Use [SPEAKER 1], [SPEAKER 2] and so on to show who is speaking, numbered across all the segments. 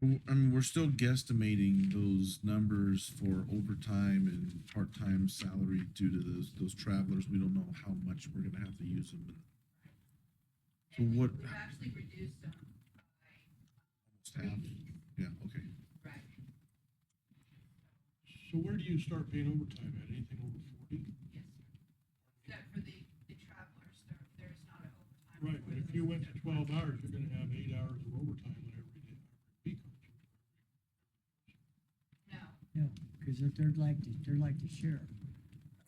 [SPEAKER 1] W- I mean, we're still guesstimating those numbers for overtime and part-time salary due to those, those travelers. We don't know how much we're gonna have to use them. So
[SPEAKER 2] And we-
[SPEAKER 1] what,
[SPEAKER 2] We've actually reduced them by three
[SPEAKER 1] half,
[SPEAKER 2] weeks,
[SPEAKER 1] yeah, okay.
[SPEAKER 2] right?
[SPEAKER 3] So where do you start paying overtime at? Anything over forty?
[SPEAKER 2] Yes. Except for the, the travelers, there, there's not an overtime.
[SPEAKER 3] Right,
[SPEAKER 2] for
[SPEAKER 3] but if
[SPEAKER 2] those
[SPEAKER 3] you went to twelve
[SPEAKER 2] different-
[SPEAKER 3] hours, you're gonna have eight hours of overtime on every day, every week. aren't you?
[SPEAKER 2] No,
[SPEAKER 4] No, because if they're like, the- they're like the sheriff.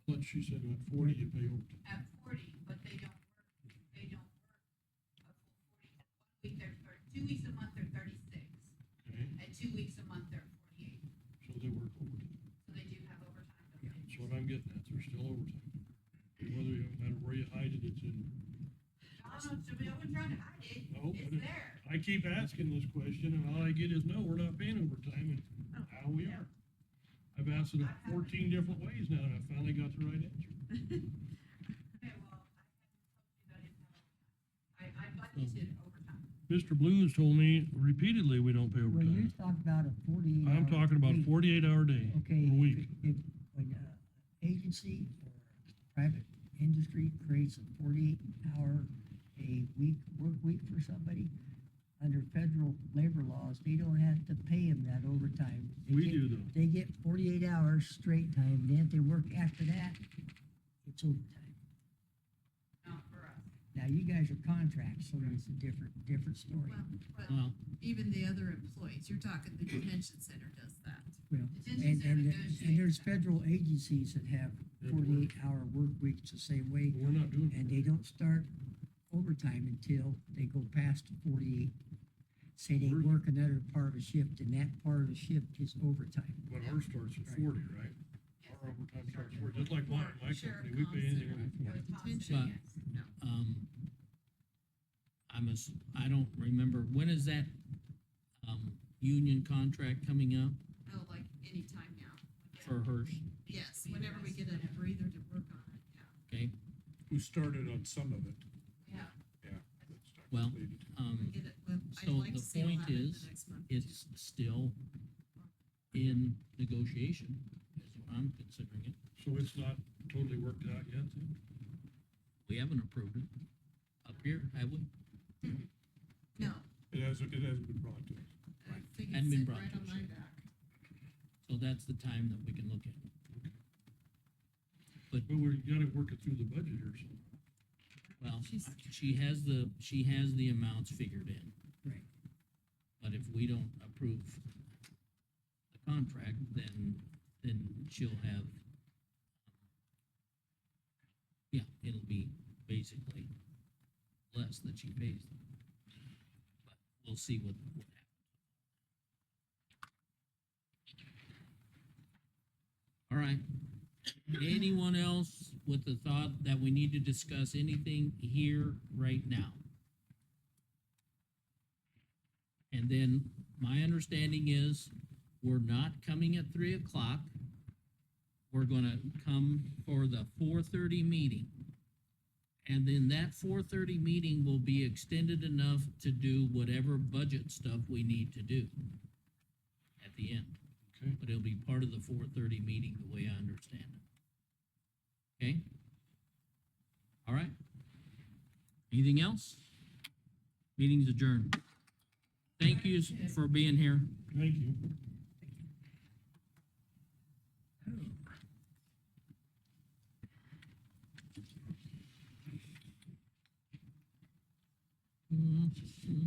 [SPEAKER 3] But she said at forty, you pay overtime.
[SPEAKER 2] at forty, but they don't work, they don't work a full forty. One week they're thirty, two weeks a month they're thirty-six,
[SPEAKER 3] Okay,
[SPEAKER 2] and two weeks a month they're forty-eight,
[SPEAKER 3] so they work overtime.
[SPEAKER 2] so they do have overtime. built in.
[SPEAKER 3] That's what I'm getting at. They're still overtime. Whether, you- no matter where you hide it, it's in.
[SPEAKER 2] I don't know, so we haven't tried to hide it,
[SPEAKER 3] No, but
[SPEAKER 2] it's
[SPEAKER 3] it-
[SPEAKER 2] there.
[SPEAKER 3] I keep asking this question and all I get is, no, we're not paying overtime
[SPEAKER 2] Oh.
[SPEAKER 3] and how we are. I've asked it fourteen different ways now and I finally got the right answer.
[SPEAKER 2] Okay, well, I haven't told you that it's not overtime. I, I budgeted overtime.
[SPEAKER 3] Mr. Blues told me repeatedly we don't pay
[SPEAKER 4] Well, you
[SPEAKER 3] overtime.
[SPEAKER 4] talk about a forty-eight
[SPEAKER 3] I'm
[SPEAKER 4] hour
[SPEAKER 3] talking about a
[SPEAKER 4] week.
[SPEAKER 3] forty-eight hour day,
[SPEAKER 4] Okay.
[SPEAKER 3] a week.
[SPEAKER 4] if- If, when a agency or private industry creates a forty-eight hour a week, work week for somebody, under federal labor laws, they don't have to pay them that overtime. They
[SPEAKER 3] We
[SPEAKER 4] get-
[SPEAKER 3] do though.
[SPEAKER 4] They get forty-eight hours straight time, then if they work after that, it's overtime.
[SPEAKER 2] Not for us.
[SPEAKER 4] Now, you guys are contracts, so it's a different, different story.
[SPEAKER 2] Well, well,
[SPEAKER 5] Well,
[SPEAKER 2] even the other employees, you're talking the detention center does that.
[SPEAKER 4] Well,
[SPEAKER 2] Detention
[SPEAKER 4] And,
[SPEAKER 2] center
[SPEAKER 4] and, and
[SPEAKER 2] negotiates
[SPEAKER 4] there's
[SPEAKER 2] that.
[SPEAKER 4] federal agencies that have
[SPEAKER 3] Yeah, but we're-
[SPEAKER 4] forty-eight hour work weeks the same way,
[SPEAKER 3] We're not doing.
[SPEAKER 4] and they don't start overtime until they go past forty-eight. Say they
[SPEAKER 3] We're-
[SPEAKER 4] work another part of a shift, and that part of the shift is overtime.
[SPEAKER 3] But ours starts at
[SPEAKER 4] Right.
[SPEAKER 3] forty, right?
[SPEAKER 2] Yes.
[SPEAKER 3] Our overtime starts at forty, just like mine, my
[SPEAKER 2] Sheriff
[SPEAKER 3] company, we pay anything over
[SPEAKER 2] Thompson
[SPEAKER 3] forty.
[SPEAKER 2] was positive,
[SPEAKER 5] But-
[SPEAKER 2] yes. No.
[SPEAKER 5] um, I must, I don't remember, when is that, um, union contract coming up
[SPEAKER 2] Oh, like anytime now.
[SPEAKER 5] for hers?
[SPEAKER 2] Yes, whenever we get a breather to work on it, yeah.
[SPEAKER 5] Okay,
[SPEAKER 6] We started on some of it.
[SPEAKER 2] Yeah.
[SPEAKER 6] It's not
[SPEAKER 5] Well,
[SPEAKER 6] completed.
[SPEAKER 5] um,
[SPEAKER 2] Get it, well, I'd
[SPEAKER 5] So
[SPEAKER 2] like
[SPEAKER 5] the
[SPEAKER 2] to see it
[SPEAKER 5] point
[SPEAKER 2] happen
[SPEAKER 5] is,
[SPEAKER 2] the next month.
[SPEAKER 5] it's still in negotiation, is what I'm considering it.
[SPEAKER 3] So it's not totally worked out yet then?
[SPEAKER 5] We haven't approved it up here, have we?
[SPEAKER 2] No,
[SPEAKER 6] It hasn't, it hasn't been brought to us.
[SPEAKER 2] I think it's
[SPEAKER 5] Hadn't been
[SPEAKER 2] sitting
[SPEAKER 5] brought
[SPEAKER 2] right
[SPEAKER 5] to
[SPEAKER 2] on
[SPEAKER 5] us
[SPEAKER 2] my
[SPEAKER 5] yet.
[SPEAKER 2] back.
[SPEAKER 5] So that's the time that we can look at. it.
[SPEAKER 3] But we gotta work it through the budget here, so.
[SPEAKER 5] Well,
[SPEAKER 2] She's-
[SPEAKER 5] she has the, she has the amounts figured in.
[SPEAKER 4] Right.
[SPEAKER 5] But if we don't approve the contract, then, then she'll have, yeah, it'll be basically less that she pays. them. But we'll see what, what happens. All right. Anyone else with the thought that we need to discuss anything here right now? And then my understanding is we're not coming at three o'clock. We're gonna come for the four thirty meeting. And then that four thirty meeting will be extended enough to do whatever budget stuff we need to do at the end.
[SPEAKER 3] Okay.
[SPEAKER 5] But it'll be part of the four thirty meeting, the way I understand it. Okay? All right. Anything else? Meeting's adjourned. Thank you for being here.
[SPEAKER 3] Thank you.
[SPEAKER 5] Mm, mm.